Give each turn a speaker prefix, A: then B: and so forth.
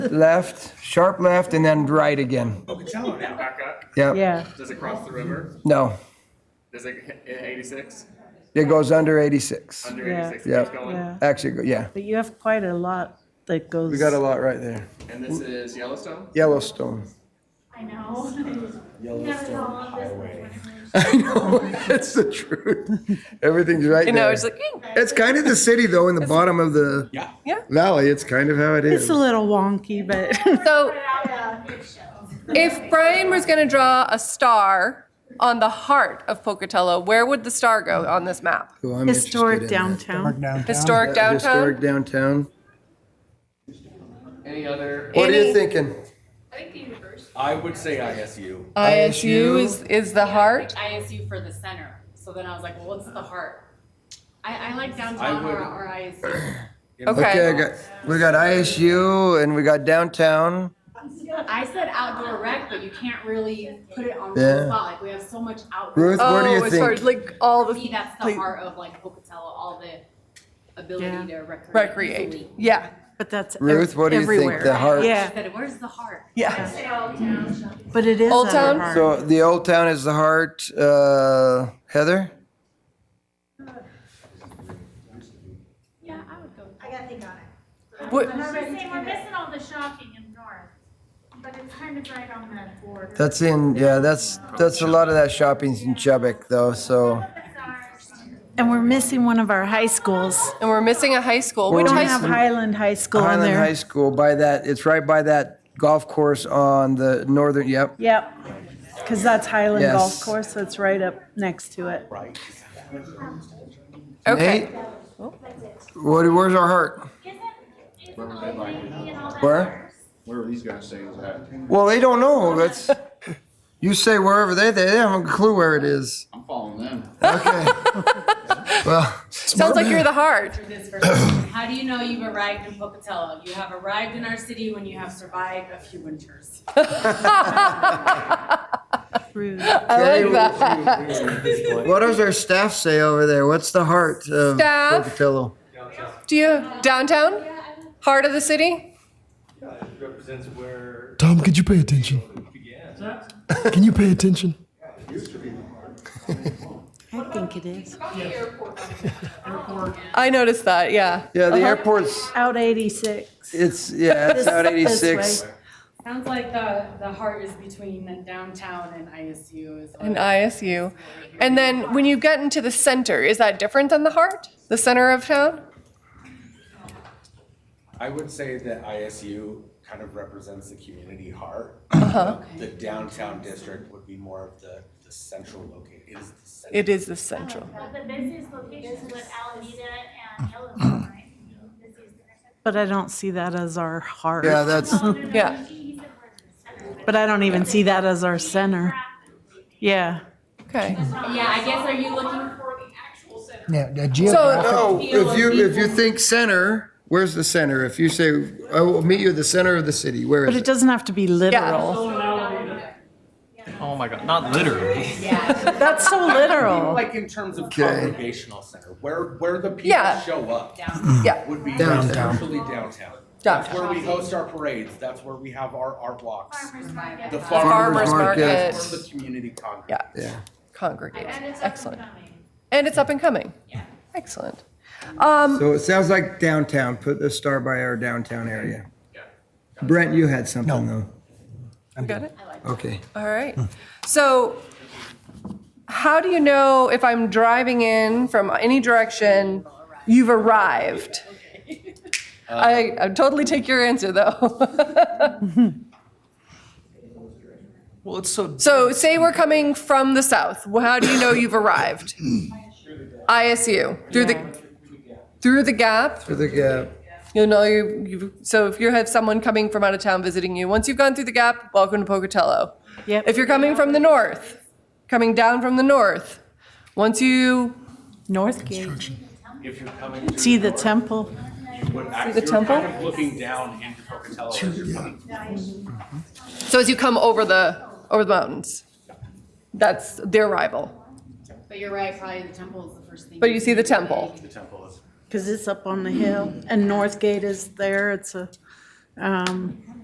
A: left, sharp left, and then right again.
B: Pocatello now back up.
A: Yep,
C: Yeah,
B: Does it cross the river?
A: no,
B: Does it hit 86?
A: it goes under 86.
B: Under
C: Yeah.
B: 86
A: Yeah.
B: keeps going.
C: yeah.
A: Actually, go- yeah,
C: But you have quite a lot that goes.
A: we got a lot right there.
B: And this is Yellowstone.
A: Yellowstone.
D: I know. Yellowstone Highway.
A: I know, that's the truth. Everything's right
E: You know,
A: there.
E: it's like, eh,
A: It's kind of the city though, in the bottom of the
F: Yeah.
A: valley. It's kind of how it
C: It's
A: is.
C: a little wonky, but
E: so
D: Yeah, it shows.
E: if Brian was going to draw a star on the heart of Pocatello, where would the star go on this map?
A: Who I'm
C: historic
A: interested in.
C: downtown.
E: Historic
A: Uh,
E: downtown?
A: Historic downtown.
B: Any other?
A: What are
E: Any-
A: you thinking?
G: I think the university.
F: I would say ISU.
E: ISU is, is the heart.
G: Like ISU for the center. So then I was like, well, what's the heart? I, I like
F: I
G: downtown
F: would-
G: or, or ISU.
A: Okay, I
E: Okay.
A: got, we got ISU and we got downtown.
G: I said outdoor rec, but you can't really put it on
A: Yeah.
G: one spot. Like we have so much outdoor.
A: Ruth, what do
E: Oh,
A: you
E: as far
A: think?
E: as like all
G: For me,
E: the
G: that's the heart of like Pocatello, all the
C: Yeah.
G: ability to recreate.
E: recreate.
G: easily.
E: Yeah.
C: But that's ev-
A: Ruth, what do you think? The
C: everywhere.
A: heart?
C: Yeah.
G: I said, where's the heart?
E: Yeah.
D: Say Old Town Shopping
C: But it is
E: Old Town?
C: under
A: So the old town is the heart, uh, Heather?
G: Yeah, I would go.
D: I gotta think on it.
E: What-
D: I'm saying we're missing all the shopping in north, but it's kind of right on that border.
A: That's in, yeah, that's, that's a lot of that shopping's in Chubbuck though, so.
D: That's ours.
C: and we're missing one of our high schools.
E: And we're missing a high school. We
C: We
E: don't
C: don't
A: We're
E: have,
C: have Highland High School on
A: Highland High
C: there.
A: School, by that, it's right by that golf course on the northern, yep.
C: Yep, because that's Highland
A: Yes.
C: Golf Course, so it's right up next to it.
E: okay.
A: Nate? What, where's our heart?
D: Isn't, isn't Old Navy and all that
A: Where?
D: ours?
H: Where are these guys saying is that?
A: Well, they don't know, that's, you say wherever they, they haven't a clue where it is.
H: I'm following them.
A: Okay. Well,
E: Sounds like you're the heart.
G: Through this first question. How do you know you've arrived in Pocatello? You have arrived in our city when you have survived a few winters.
C: Through
E: I like that.
A: what does our staff say over there? What's the heart of
E: Staff?
A: Pocatello?
E: Do you have downtown? Heart of the city?
I: represents where
J: Tom, could you pay attention?
I: it began.
J: Can you pay attention?
C: I think it is.
E: I noticed that, yeah.
A: Yeah, the airport's,
C: Out 86.
A: It's yeah, it's out
C: Uh-huh. This way.
A: 86.
G: Sounds like the, the heart is between downtown and ISU is
E: And
G: like,
E: ISU. And then when you get into the center, is that different than the heart? The center of town?
F: I would say that ISU kind of represents the community heart.
J: Uh-huh.
F: The downtown district would be more of the, the central location. It is the central.
E: It is the central.
D: But the busiest location was Alameda and Yellowstone, right? This is the-
C: But I don't see that as our heart.
A: Yeah, that's
C: Uh-huh.
D: No, no, no,
E: Yeah.
D: he- he said we're the center,
C: But I don't even see that as our center. Yeah.
E: Okay.
G: yeah, I guess are you looking for
E: So,
A: no. uh, If you if you think center, where's the center? If you say I will meet you at the center of the city, where
C: But
A: is
C: it
A: it?
C: doesn't have to be literal.
I: Oh my god, not literally.
C: That's so literal.
F: Like in terms of
A: Okay.
F: congregational center, where, where the people
E: Yeah.
F: show up
E: yeah,
F: would be
A: Downtown.
F: essentially downtown. That's
E: downtown.
F: where we host our parades, that's where we have our art walks,
D: farmer's market.
F: the
E: Farmers
F: farmers
A: market.
F: market, or the community congress.
E: Yeah.
A: Yeah.
E: Congregate.
D: And it's up and
E: Excellent.
D: coming.
E: And it's up and coming. Yeah. Excellent. Um,
A: So it sounds like downtown. Put the star by our downtown area. Brent, you had something
E: we got it?
A: though. Okay.
E: All right. So how do you know if I'm driving in from any direction, you've arrived? I, I totally take your answer though.
I: Well, it's so.
E: so say we're coming from the south. Well, how do you know you've arrived? ISU through the through the gap.
A: For the uh, gap.
E: You'll know you. you so if you have someone coming from out of town visiting you, once you've gone through the gap, welcome to Pocatello.
C: Yep.
E: If you're coming from the north, coming down from the north, once you
C: Northgate.
I: If you're coming to.
C: See the temple.
E: see the temple.
I: Kind of looking down into Pocatello as you're coming.
E: So as you come over the over the mountains, that's their arrival.
G: But you're right, probably the temple is the first thing.
E: But you see the temple.
F: The temple is
C: Because it's up on the hill, and Northgate is there, it's a, um,